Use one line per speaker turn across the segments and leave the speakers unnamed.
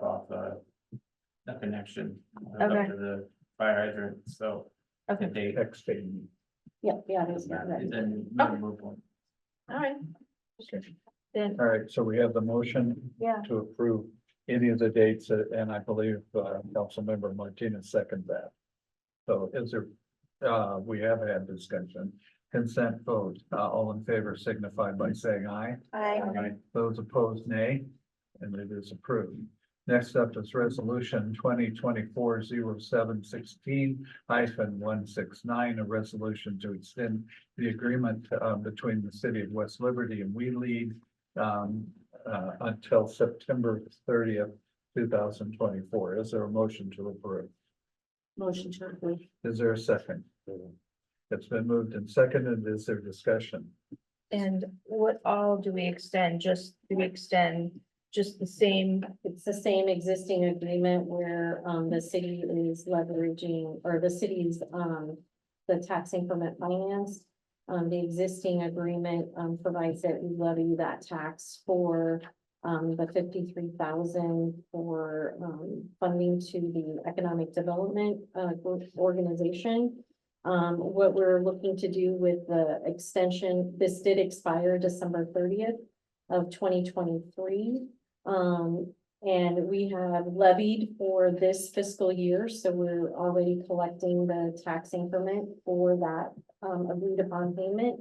that uh, connection. uh, up
Okay.
to The fire hydrant, so.
Okay.
if they-
Extend.
Yeah, yeah, there's not that.
Then you can move on.
all right. Then,
All right, so we have the motion
yeah,
to approve any of the dates, uh, and I believe, uh, Councilmember Martinez seconded that. So is there, uh, we have had discussion, consent vote, uh, all in favor signify by saying aye.
I,
Those opposed, nay, and it is approved. Next up is resolution twenty twenty-four zero seven sixteen hyphen one six nine, a resolution to extend the agreement uh, between the city of West Liberty and We Lead um, uh, until September thirtieth, two thousand twenty-four. Is there a motion to approve?
Motion to approve.
Is there a second? It's been moved and seconded. Is there discussion?
and what all do we extend? Just, do we extend just the same?
It's the same existing agreement where, um, the city is leveraging, or the city's, um, the tax increment finance. Um, the existing agreement, um, provides that we levy that tax for, um, the fifty-three thousand for, um, funding to the Economic Development, uh, group- organization. Um, what we're looking to do with the extension, this did expire December thirtieth of twenty twenty-three. Um, and we have levied for this fiscal year, so we're already collecting the tax increment for that um, agreed upon payment.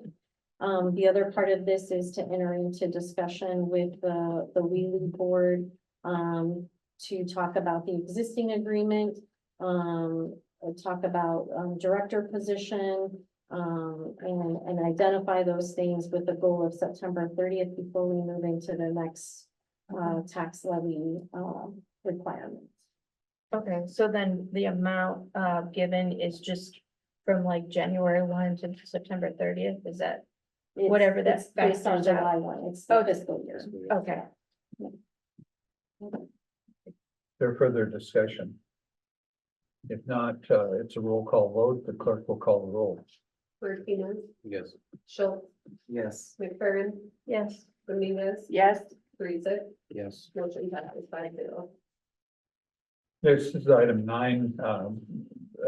Um, the other part of this is to enter into discussion with the, the Wheelie Board um, to talk about the existing agreement, um, or talk about um, director position, um, and, and identify those things with the goal of September thirtieth before we move into the next uh, tax levy, um, requirements.
Okay, so then the amount, uh, given is just from like January one to September thirtieth, is that?
It's-
Whatever that
it's Based on
factors out.
July one, it's the
Okay.
fiscal year.
Okay,
There further discussion? If not, uh, it's a roll call vote. The clerk will call the roll.
Martinez,
Yes.
Schultz,
Yes.
McFerrin,
yes,
Dominguez,
Yes.
Parisa,
Yes.
motion passes five zero.
This is item nine, um,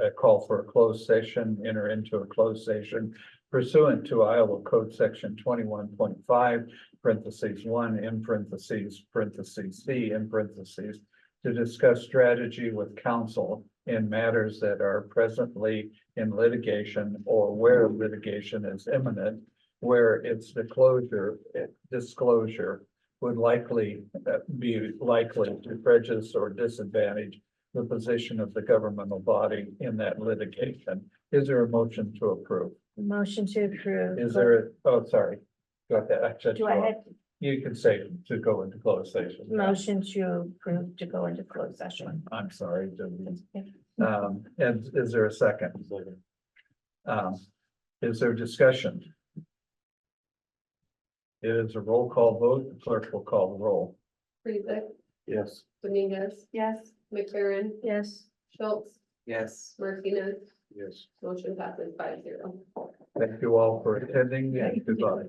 a call for a closed session, enter into a closed session pursuant to Iowa Code Section twenty-one point five, parentheses one, in parentheses, parentheses C, in parentheses, to discuss strategy with counsel in matters that are presently in litigation or where litigation is imminent, where its disclosure, disclosure would likely uh, be likely to prejudice or disadvantage the position of the governmental body in that litigation. Is there a motion to approve?
motion to approve.
Is there, oh, sorry. Got that. I said
Do I
you off.
have
You can say to go into closed session.
motion to approve to go into closed session?
I'm sorry. didn't- Um, and is there a second? Um, is there discussion? It is a roll call vote. The clerk will call the roll.
Parisa,
Yes.
Dominguez,
Yes.
McFerrin,
Yes.
Schultz,
Yes.
Martinez,
Yes.
motion passes five zero.
Thank you all for attending and goodbye.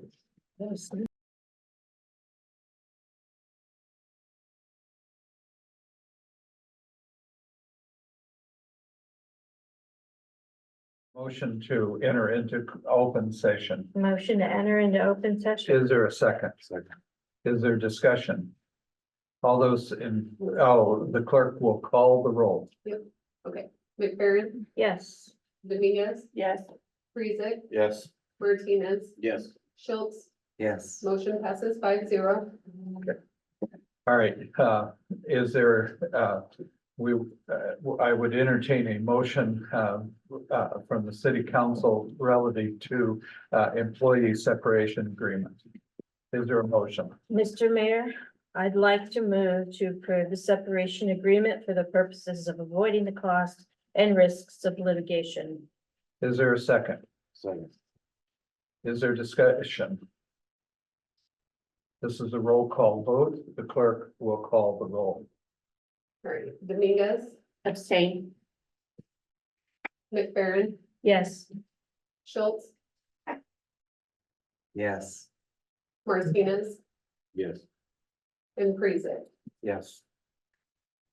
Motion to enter into open session.
Motion to enter into open session?
Is there a second? Is there discussion? All those in, oh, the clerk will call the roll.
McFerrin,
Yes.
Dominguez,
Yes.
Parisa,
Yes.
Martinez,
Yes.
Schultz,
Yes.
motion passes five zero.
All right, uh, is there, uh, we, uh, I would entertain a motion, uh, uh, from the city council relative to, uh, employee separation agreement. Is there a motion?
Mr. Mayor, I'd like to move to approve the separation agreement for the purposes of avoiding the cost and risks of litigation.
Is there a second?
Second.
Is there discussion? This is a roll call vote. The clerk will call the roll.
All right, Dominguez,
Abstain.
McFerrin,
Yes.
Schultz,
Yes.
Martinez,
Yes.
and Parisa.
Yes.